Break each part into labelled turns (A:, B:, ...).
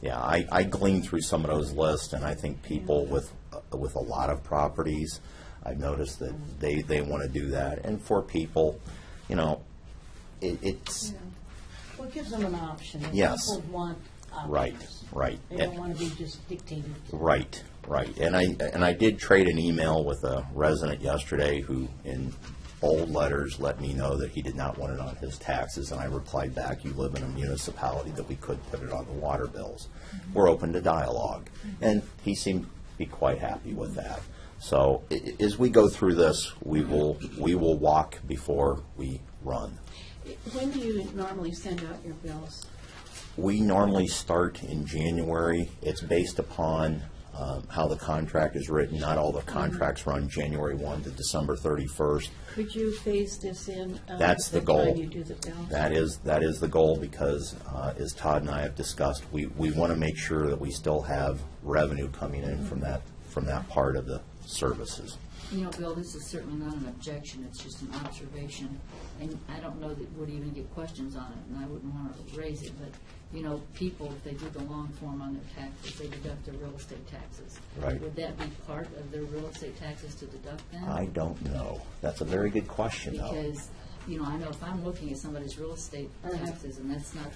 A: Yeah, I, I gleaned through some of those lists, and I think people with, with a lot of properties, I've noticed that they, they want to do that. And for people, you know, it, it's,
B: Well, it gives them an option. and
A: Yes.
B: People want options.
A: Right, right.
B: They don't want to be just dictated. to.
A: Right, right. And I, and I did trade an email with a resident yesterday who, in bold letters, let me know that he did not want it on his taxes, and I replied back, you live in a municipality that we could put it on the water bills. We're open to dialogue. And he seemed to be quite happy with that. So i- i- as we go through this, we will, we will walk before we run.
C: When do you normally send out your bills?
A: We normally start in January. It's based upon um, how the contract is written. Not all the contracts run January 1 to December 31st.
C: Could you phase this in? uh,
A: That's the goal.
C: time you do the bills?
A: That is, that is the goal because, uh, as Todd and I have discussed, we, we want to make sure that we still have revenue coming in from that, from that part of the services.
D: You know, Bill, this is certainly not an objection, it's just an observation, and I don't know that we'd even get questions on it, and I wouldn't want to raise it, but, you know, people, if they do the long form on their taxes, they deduct their real estate taxes.
A: Right.
D: Would that be part of their real estate taxes to deduct then?
A: I don't know. That's a very good question, though.
D: Because, you know, I know if I'm looking at somebody's real estate taxes, and that's not,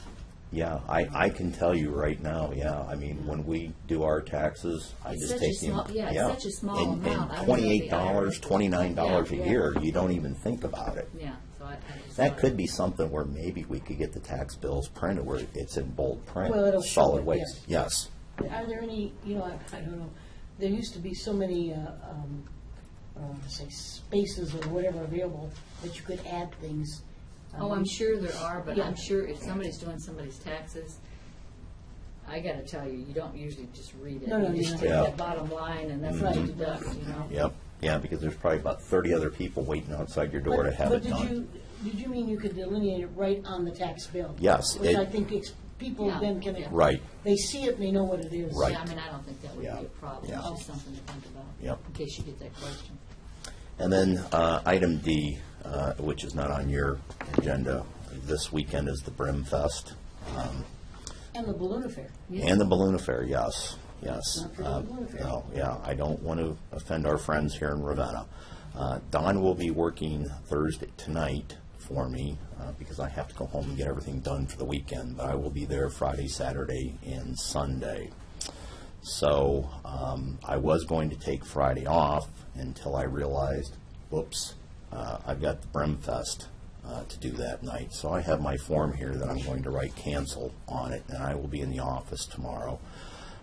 A: Yeah, I, I can tell you right now, yeah. I mean, when we do our taxes, I
D: It's
A: just
D: such a
A: take the.
D: small- yeah, it's such a small
A: And-
D: amount. I
A: And
D: don't know the
A: twenty-eight dollars,
D: IRS.
A: twenty-nine dollars a
D: Yeah, yeah.
A: year, you don't even think about it.
D: yeah, so I, I just.
A: That could be something where maybe we could get the tax bills printed where it's in bold print.
B: Well, it'll show
A: Solid
B: it,
A: waste, yes.
B: Are there any, you know, I I don't know, there used to be so many, uh, um, I don't want to say spaces or whatever available that you could add things. um,
D: Oh, I'm sure there are, but
B: Yeah.
D: I'm sure if somebody's doing somebody's taxes, I gotta tell you, you don't usually just read it.
B: No, no,
D: You
B: you
D: just
B: don't.
D: take
A: Yeah.
D: that bottom line and that's what you deduct, you know?
A: Yep, yeah, because there's probably about thirty other people waiting outside your door to have
B: But
A: it
B: did
A: done.
B: you, did you mean you could delineate it right on the tax bill?
A: Yes,
B: Which
A: it-
B: I think it's, people
D: Yeah,
B: then can.
D: yeah.
A: Right.
B: They see it and they know what it is.
A: Right.
D: Yeah, I mean, I don't think that would be
A: Yeah.
D: a problem,
A: Yeah.
D: it's just something to think about.
A: Yep.
D: In case you get that question.
A: And then uh, item D, uh, which is not on your agenda, this weekend is the Brim Fest. Um,
B: And the balloon affair. Uh,
A: And the balloon affair, yes, yes.
B: Not for the
A: Uh,
B: balloon affair.
A: No, yeah, I don't want to offend our friends here in Ravenna. Uh, Don will be working Thursday, tonight for me, uh, because I have to go home and get everything done for the weekend, but I will be there Friday, Saturday, and Sunday. So, um, I was going to take Friday off until I realized, whoops, uh, I've got the Brimfest, uh, to do that night. So I have my form here that I'm going to write cancel on it, and I will be in the office tomorrow.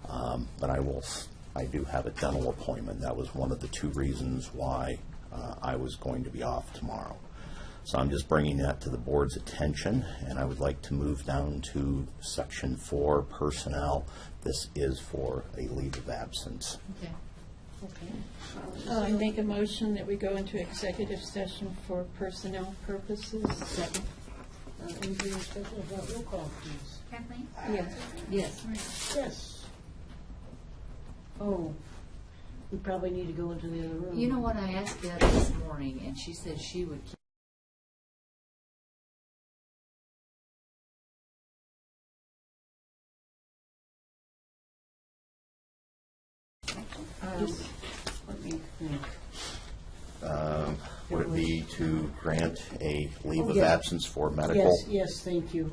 A: Um, but I will, s- I do have a dental appointment. That was one of the two reasons why, uh, I was going to be off tomorrow. So I'm just bringing that to the board's attention, and I would like to move down to section four, personnel. This is for a leave of absence.
D: Okay.
C: Uh, I make a motion that we go into executive session for personnel purposes. Second.
B: Uh, Anything special about roll call, please?
E: Kathleen?
C: Yes.
D: Yes,
B: Yes. Oh, we probably need to go into the other room.
D: you know what, I asked Deb this morning, and she said she would keep
B: Let me think.
A: Would it be to grant a leave of
B: Oh, Yeah.
A: absence for medical,
B: Yes, yes, thank you.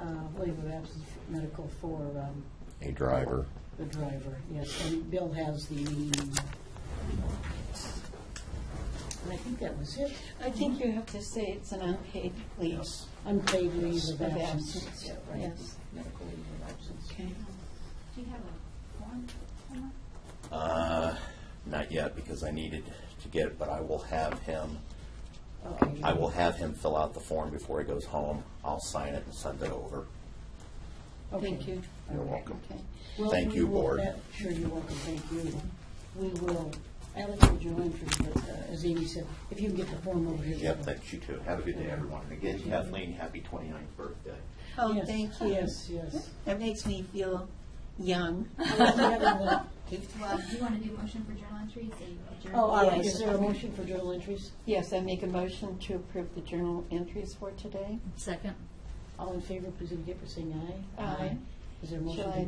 B: Uh, Leave of absence for medical for um,
A: a driver?
B: the driver, yes. And Bill has the, and I think that was it.
C: I think you have to say it's an unpaid leave.
B: Unpaid leave of
C: Of
B: absence.
C: absence,
B: Yeah, right.
C: Yes,
B: Medical leave of absence.
C: okay.
E: Do you have a form? Emma?
A: Not yet, because I needed to get it, but I will have him,
B: Okay.
A: I will have him fill out the form before he goes home. I'll sign it and send it over.
B: Okay.
C: Thank you.
A: You're welcome.
C: Okay.
B: Well,
A: Thank
B: we
A: you,
B: will-
A: Board.
B: that- Sure, you're welcome, thank you. We will, Alex, would you mind, for- uh, as Amy said, if you can get the form over here.
A: Yep, thanks, you too. Have a good day, everyone. And again, Kathleen, happy 29th birthday.
C: Oh,
B: Yes,
C: thank you.
B: Yes, yes.
C: That makes me feel young.
E: Well, do you want to do motion for journal entries? and journal-
B: Oh, all right,
C: Yes.
B: is there a motion for journal entries?
C: Yes, I make a motion to approve the journal entries for today.
D: second.
B: All in favor, please indicate by saying aye.
C: Aye.
B: Is there a motion?
C: Shall
B: to
C: I